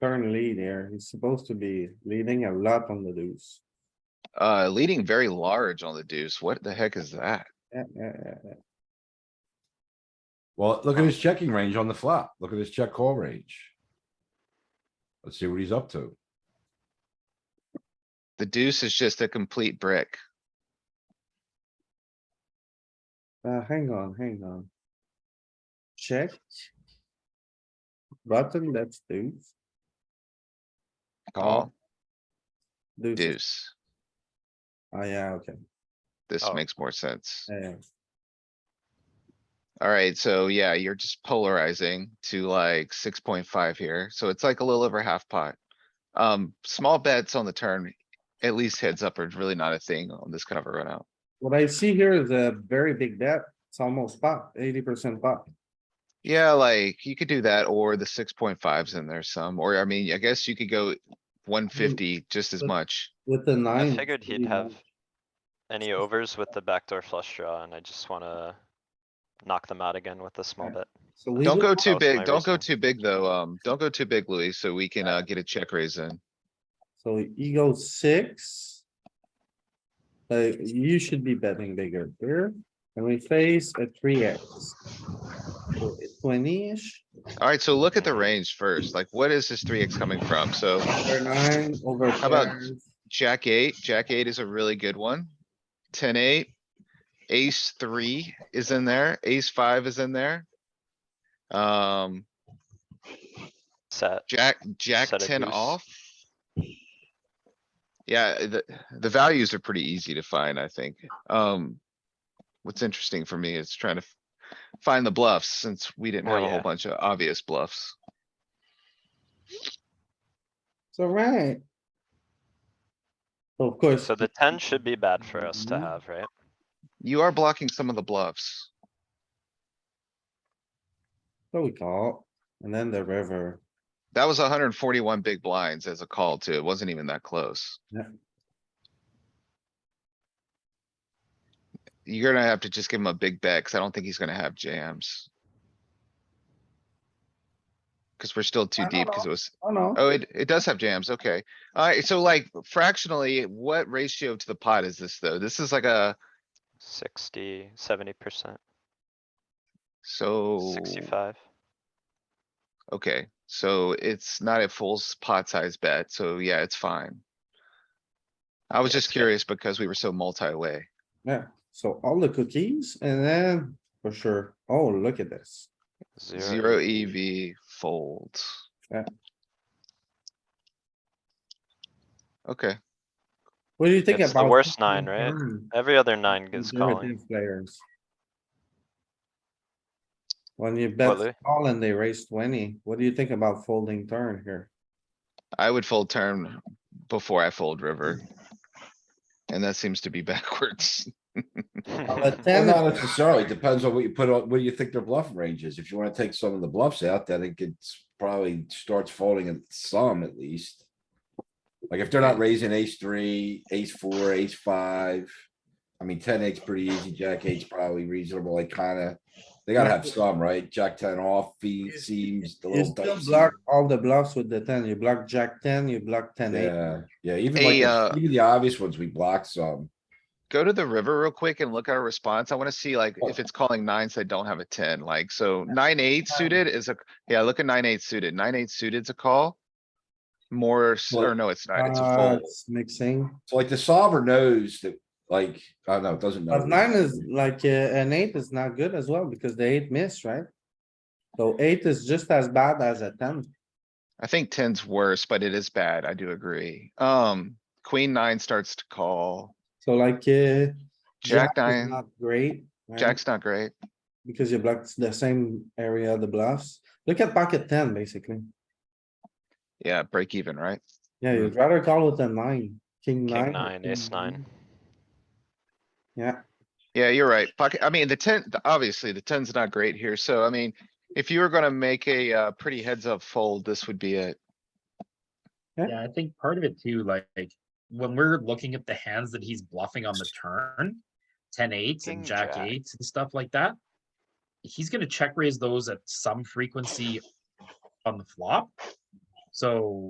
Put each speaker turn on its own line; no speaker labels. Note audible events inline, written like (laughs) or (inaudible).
turn lead here. He's supposed to be leading a lot on the deuce.
Uh, leading very large on the deuce. What the heck is that?
Yeah, yeah, yeah, yeah.
Well, look at his checking range on the flop. Look at his check call range. Let's see what he's up to.
The deuce is just a complete brick.
Uh, hang on, hang on. Check. Button, that's deuce. Oh,
Call
Deuce. is-
deuce.
Oh, yeah, okay,
This
Oh.
makes more sense.
yeah. yeah.
Alright, so yeah, you're just polarizing to like six point five here. So it's like a little over half pot. Um, small bets on the turn, at least heads up are really not a thing on this kind of a run out.
What I see here is a very big bet. It's almost pot, eighty percent pot.
Yeah, like you could do that or the six point fives in there some, or I mean, I guess you could go one fifty just as
Mm. but-
much.
With the nine.
I
it's
figured
pretty
he'd have
much-
any overs with the backdoor flush draw and I just wanna knock them out again with a small
Yeah.
bit.
So we
Don't
would-
go
That
too
was
big,
my
don't go too
reasoning.
big though, um, don't go too big, Louis, so we can, uh, get a check raise in.
So he goes six. Uh, you should be betting bigger here, and we face a three X. Twenty-ish,
Alright, so look at the range first, like what is this three X coming from? So
over nine, over.
How about-
pairs.
Jack eight, Jack eight is a really good one. Ten eight, ace three is in there, ace five is in there. Um,
Set,
Jack, Jack
Set a
ten
deuce.
off. Yeah, the, the values are pretty easy to find, I think. Um, what's interesting for me is trying to f- find the bluffs since we didn't
Oh,
have a whole
yeah.
bunch of obvious bluffs.
So right. Of course.
so the ten should be bad for us to
Mhm.
have, right?
You are blocking some of the bluffs.
So we call, and then the river.
That was hundred and forty-one big blinds as a call too. It wasn't even that close.
Yeah.
You're gonna have to just give him a big bet, cause I don't think he's gonna have jams. Cause we're still too
I don't
deep, cause it was,
Oh, no.
oh, it, it does have jams, okay. Alright, so like fractionally, what ratio to the pot is this though? This is like a,
Sixty, seventy percent,
Oh.
so.
sixty-five.
Okay, so it's not a full s- pot size bet, so yeah, it's fine. I was
Yeah,
just
so-
curious because we were so multi-way.
Yeah, so all the cookies and then for sure. Oh, look at this.
Zero E
Zero e-
EV.
EV folds.
Yeah.
Okay,
What do you think
It's the
about? Hmm.
worst nine, right? Every other nine gets calling.
Conservative Players. When you
What, Louis?
bet all and they raise twenty, what do you think about folding turn here?
I would fold turn before I fold river. And that seems to be (laughs) backwards.
On a
Well,
ten,
not necessarily. Depends on what you put on, what you think their bluff range is. If you wanna take some of the bluffs out, then it gets probably starts folding in some at least. Like if they're not raising ace three, ace four, ace five. I mean, ten eight's pretty easy. Jack eight's probably reasonable. Like kinda, they gotta have some, right? Jack ten off, he
Is-
seems a
you
little
still
dicey.
block all the bluffs with the ten. You block jack ten, you block ten
Yeah,
eight.
yeah, even
Hey,
like,
uh,
the- even the obvious ones, we block some.
Go to the river real quick and look at our response. I wanna see like
Oh.
if it's calling nines that don't have a ten, like, so nine eight suited is a, yeah, look at nine eight suited. Nine eight suited's a call. More, s- or no, it's not, it's a
Uh,
fold.
it's mixing.
So like the solver knows that, like, I don't know, it doesn't know.
But nine is like, uh, an eight is not good as well because the eight missed, right? So eight is just as bad as a ten.
I think ten's worse, but it is bad. I do agree. Um, queen nine starts to call.
So like, uh.
Jack
is
nine.
Not great. right?
Jack's not great.
Because you blocked the same area of the bluffs. Look at pocket ten, basically.
Yeah, break even, right?
Yeah, you'd rather call with a nine, king nine.
(laughs) King
or
nine, ace nine.
Yeah,
Yeah, you're right. Pocket, I mean, the ten, the- obviously the ten's not great here. So I mean, if you were gonna make a, uh, pretty heads up fold, this would be it.
Yeah, I think part of it too, like, like, when we're looking at the hands that he's bluffing on the turn, ten eights
King
and jack
jack.
eights and stuff like that. He's gonna check raise those at some frequency on the flop. So